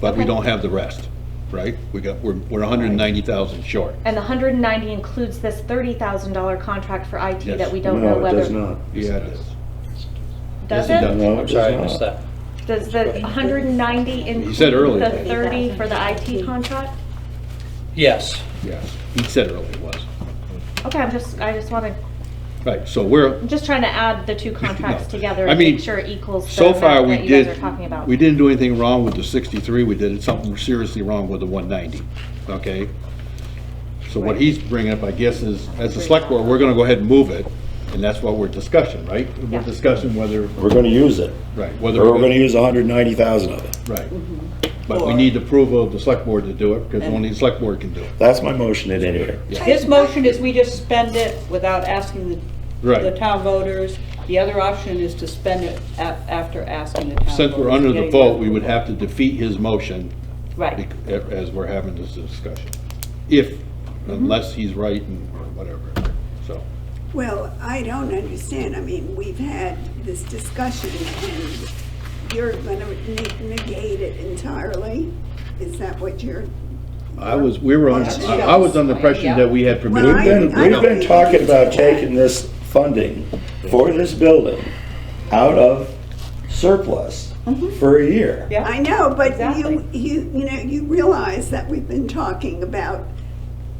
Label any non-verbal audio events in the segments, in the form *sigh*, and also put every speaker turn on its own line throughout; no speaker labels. but we don't have the rest, right? We got, we're, we're hundred and ninety thousand short.
And the hundred and ninety includes this thirty thousand dollar contract for IT
Yes.
that we don't know
No, it
whether.
does not.
Yeah, it is.
Does
Yes, it
it?
No,
I'm
it
sorry, I missed
does not.
that.
Does the hundred and ninety
He
include
said earlier,
the
that-
thirty for the IT contract?
Yes,
yes, he said earlier it was.
Okay, I'm just, I just wanna,
Right, so we're,
I'm just trying to add the two
*laughs*
contracts
No.
together
I
and
mean,
make sure it equals the
so far,
amount
we
that you guys
did,
are talking about.
we didn't do anything wrong with the sixty-three, we did something seriously wrong with the one ninety, okay? So what he's bringing up, I guess, is, as a select board, we're gonna go ahead and move it, and that's what we're discussing, right?
Yeah.
We're discussing whether,
We're gonna use it,
right, whether.
or we're gonna use hundred and ninety thousand of it.
Right.
Mm-hmm.
But we need the approval of the select board to do it, because only the select board can do it.
That's my motion at any rate.
His motion is we just spend it without asking the, the
Right.
town voters. The other option is to spend it a- after asking the town voters.
Since we're under the
getting
vote, we
approval.
would have to defeat his motion
Right,
bec- as we're having this discussion. If, unless he's right and or whatever, so.
Well, I don't understand. I mean, we've had this discussion and you're going to negate it entirely? Is that what you're?
I was, we were on, I I was under pressure that we had permission.
Well,
We've been,
I
we've
don't
been
think-
talking about taking this funding for this building out of surplus for a year.
Mm-hmm. yeah.
I know, but
Exactly.
you, you, you know, you realize that we've been talking about,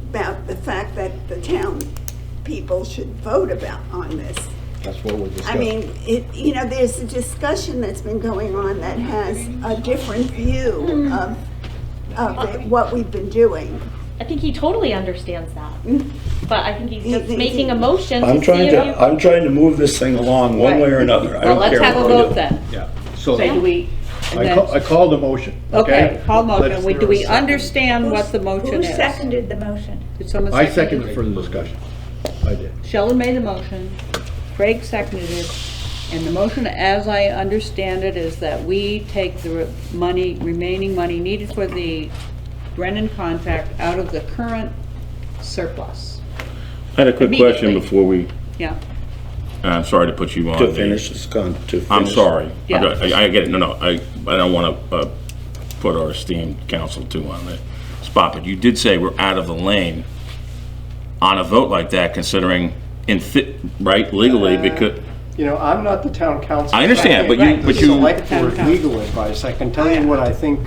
about the fact that the town people should vote about, on this.
That's what we're
I
discussing.
mean, it, you know, there's a discussion that's been going on that has a different
Hmm.
view of, of the- what we've been doing.
I think he totally
*laughs*
understands that, but I think he's
He-
just
he-
making a motion
I'm
to see
trying
if
to,
you.
I'm trying to move this thing along one way or another. I
Well,
don't
let's
care
have a
what we do.
vote then.
Yeah, so
Say, do
I
we, and
ca- I
then,
called the motion, okay?
okay, Paul motion,
Let's-
we, do we understand what the motion
Who
is?
seconded the motion?
Did someone
I
second
seconded
it?
for the discussion. I did.
Sheldon made the motion, Craig seconded it, and the motion, as I understand it, is that we take the re- money, remaining money needed for the Brennan contract out of the current surplus.
I had a quick question
Immediately.
before we,
Yeah,
I'm sorry to put you on.
To
there.
finish this con, to finish.
I'm sorry. I
Yeah.
got- I I get it, no, no, I, I don't want to put our esteemed council too on the spot, but you did say we're out of the lane on a vote like that, considering in fit, right, legally,
Uh,
because,
You know, I'm not the town council.
I understand, but you-
I'm
but
the
you-
Select
Town
board
council.
legal advice. I can tell you what I think,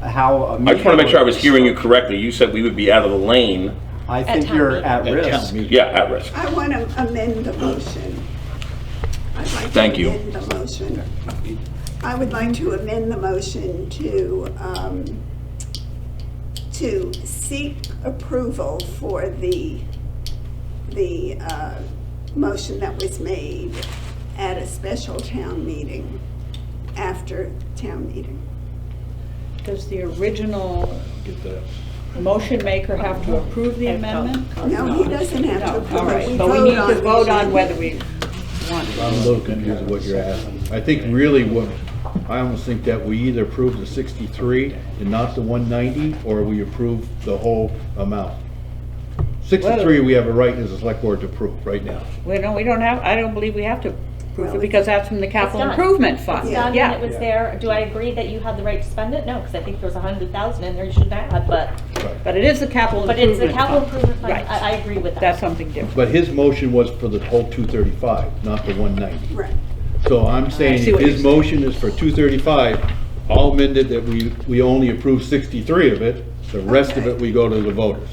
how a meeting.
I just want to make sure I was hearing you correctly. You said we would be out of the lane,
I think
town
you're
meeting.
at
At town
risk.
meeting.
yeah, at risk.
I want to amend the motion. I'd like to
Thank you.
amend the motion. I would like to amend the motion to, um, to seek approval for the, the uh, motion that was made at a special town meeting, after town meeting.
does the original
Get that.
motion maker have to approve the amendment?
No, he doesn't have to
No,
approve.
all
it.
right, but we need to vote on
it.
whether we want it.
I'm a little confused with what you're asking. I think really what, I almost think that we either approve the 63 and not the 190, or we approve the whole amount. 63, we have a right as a select board to approve right now.
We don't, we don't have, I don't believe we have to approve it,
Well,
because that's from the capital
done.
improvement fund.
Done when it
Yeah,
was there, do I agree that you had the right to spend it? No, because I think there was a hundred thousand in there you shouldn't have, but,
but it is the capital
but it's the
improvement
capital
fund.
improvement fund,
Right.
I, I agree with that.
That's something different.
But his motion was for the whole 235, not the 190.
Right.
So I'm saying
see
if
what
his
you're
motion
saying.
is for 235, I'll amend it that we, we only approve 63 of it, the rest of it we go to the voters.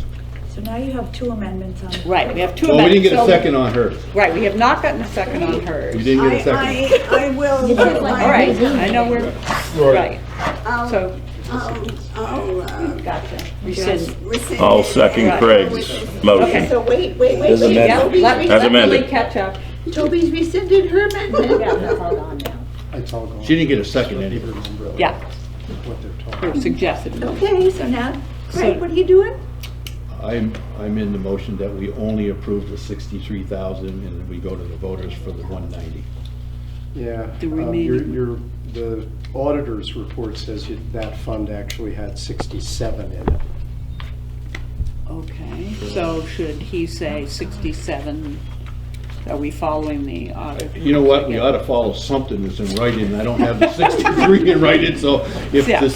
So now you have two amendments on it.
Right, we have two
Well, we
amendments.
didn't get a
so-
second on hers.
Right, we have not gotten a second on hers.
We didn't get a second.
I, I, I will.
All right, I know we're, right,
Um,
I'll-
so,
I'll, I'll, uh,
gotcha. Rescind.
rescind.
I'll
it.
second
Right.
Craig's motion.
So wait, wait, wait,
There's a
wait.
menu.
Yeah, let,
Toby's
As
let Lily
amended.
catch up.
re- Toby's rescinded her amendment.
Yeah, that's all gone now.
It's all gone.
She didn't get a second anyway.
Remember
Yeah,
what they're talking
or suggested.
Okay, so now, Craig, what are you doing?
I'm, I'm in the motion that we only approve the sixty-three thousand and then we go to the voters for the one ninety.
The
Yeah. um, your-
remaining.
Your, the auditor's report says you- that fund actually had 67 in it.
Okay, so should he say sixty-seven? Are we following the audit?
You know what, we ought to follow something that's in writing, I don't have the sixty-three in writing, so if
Yeah.
the